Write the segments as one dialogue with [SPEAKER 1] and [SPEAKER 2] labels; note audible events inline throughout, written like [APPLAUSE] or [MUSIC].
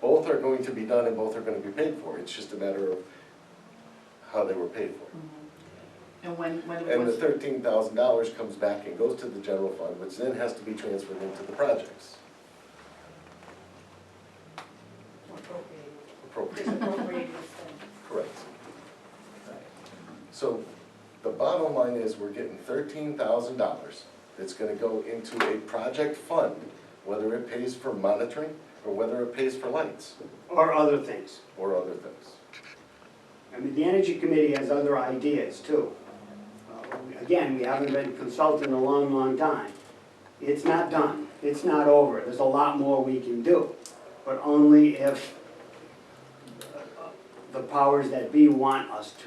[SPEAKER 1] both are going to be done and both are gonna be paid for, it's just a matter of how they were paid for.
[SPEAKER 2] And when, when
[SPEAKER 1] And the
[SPEAKER 2] was,
[SPEAKER 1] thirteen thousand dollars comes back and goes to the general fund, which then has to be transferred into the projects. Appropriate, correct. So the bottom line is, we're getting thirteen thousand dollars that's gonna go into a project fund, whether it pays for monitoring or whether it pays for lights
[SPEAKER 3] or other things.
[SPEAKER 1] or other things.
[SPEAKER 3] I mean, the Energy Committee has other ideas too. Uh, Again, we haven't been consulted in a long, long time. It's not done, it's not over, there's a lot more we can do, but only if uh, the powers that be want us to.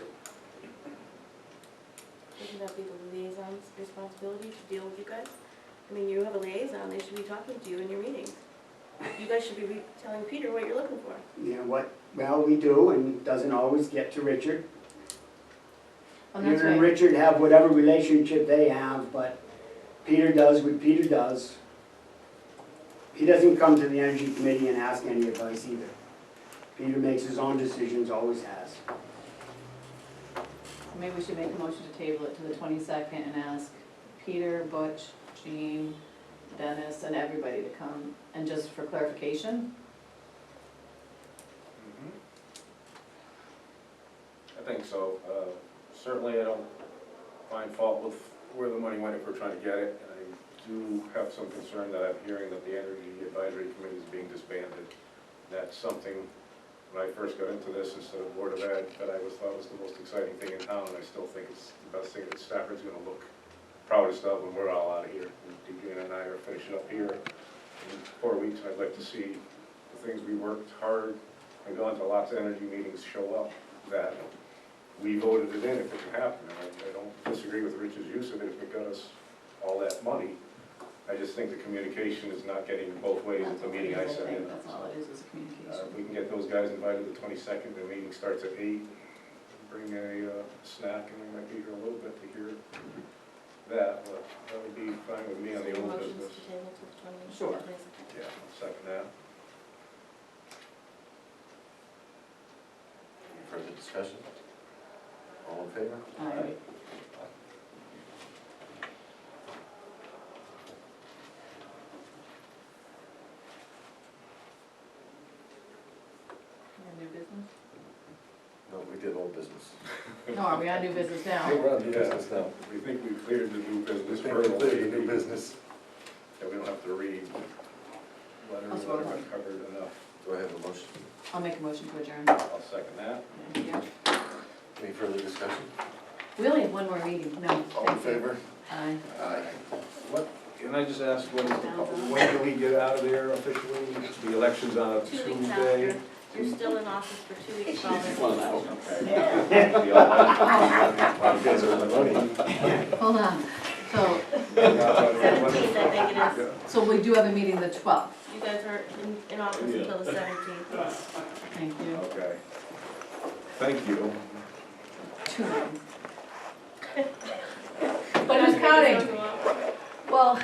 [SPEAKER 4] Wouldn't that be the liaison's responsibility to deal with you guys? I mean, you have a liaison, they should be talking to you in your meetings. You guys should be re- telling Peter what you're looking for.
[SPEAKER 3] You know what, well, we do, and it doesn't always get to Richard.
[SPEAKER 2] and
[SPEAKER 3] You
[SPEAKER 2] Oh, that's
[SPEAKER 3] and
[SPEAKER 2] why,
[SPEAKER 3] Richard have whatever relationship they have, but Peter does what Peter does. He doesn't come to the Energy Committee and ask any advice either. Peter makes his own decisions, always has.
[SPEAKER 2] maybe we should make a motion to table it to the twenty-second and ask Peter, Butch, Jean, Dennis, and everybody to come, and just for clarification,
[SPEAKER 5] Mm-hmm. I think so. Uh, Certainly, I don't find fault with where the money went if we're trying to get it. And I do have some concern that I'm hearing that the Energy Advisory Committee is being disbanded. That's something, when I first got into this instead of Board of Ed, that I was, thought was the most exciting thing in town, and I still think it's the best thing that Stafford's gonna look proudest of when we're all out of here. And Deidre and I are finishing up here in four weeks, and I'd like to see the things we worked hard and gone to lots of energy meetings show up that we voted it in if it can happen, and I, I don't disagree with Rich's use of it if it got us all that money. I just think the communication is not getting both ways at
[SPEAKER 2] that's
[SPEAKER 5] the
[SPEAKER 2] all it
[SPEAKER 5] meeting I
[SPEAKER 2] is, I
[SPEAKER 5] sat in
[SPEAKER 2] think,
[SPEAKER 5] on.
[SPEAKER 2] that's all it is, is a
[SPEAKER 5] Uh,
[SPEAKER 2] communication.
[SPEAKER 5] if we can get those guys invited the twenty-second, the meeting starts at eight, bring a, uh, snack, and we might be here a little bit to hear that, but that would be fine with me on the old
[SPEAKER 4] Motion's
[SPEAKER 5] business.
[SPEAKER 4] to table to the 20
[SPEAKER 3] Sure.
[SPEAKER 5] Yeah, I'll second that.
[SPEAKER 1] Any Further discussion? All in favor?
[SPEAKER 2] All right, and new
[SPEAKER 5] [LAUGHS]
[SPEAKER 2] business?
[SPEAKER 1] No, we did old business.
[SPEAKER 2] No, are we on new business
[SPEAKER 1] I think
[SPEAKER 2] now?
[SPEAKER 1] we're on new business now.
[SPEAKER 5] We think we cleared the new
[SPEAKER 1] We
[SPEAKER 5] business
[SPEAKER 1] think we
[SPEAKER 5] hurdle.
[SPEAKER 1] cleared the new business.
[SPEAKER 5] That we don't have to read letters
[SPEAKER 2] That's
[SPEAKER 5] that
[SPEAKER 2] what I
[SPEAKER 5] are
[SPEAKER 2] want.
[SPEAKER 5] covered enough.
[SPEAKER 1] Do I have a motion?
[SPEAKER 2] I'll make a motion to adjourn.
[SPEAKER 5] I'll second that.
[SPEAKER 2] Thank you.
[SPEAKER 1] Any further discussion?
[SPEAKER 2] We only have one more meeting, no.
[SPEAKER 1] All in
[SPEAKER 2] thank you.
[SPEAKER 1] favor?
[SPEAKER 2] Aye.
[SPEAKER 1] Aye.
[SPEAKER 5] What, can I just ask, when, when do we get out of there officially? The election's on a
[SPEAKER 4] Two weeks after,
[SPEAKER 5] Tuesday?
[SPEAKER 4] you're still in office for two weeks following.
[SPEAKER 5] [LAUGHS]
[SPEAKER 1] You guys are on the money.
[SPEAKER 2] Hold on, so,
[SPEAKER 4] Seventeenth, I think it is.
[SPEAKER 2] so we do have a meeting the twelfth,
[SPEAKER 4] You guys are in, in office until the seventeenth.
[SPEAKER 2] thank you,
[SPEAKER 5] Okay. Thank you.
[SPEAKER 2] two meetings. But who's counting? Well,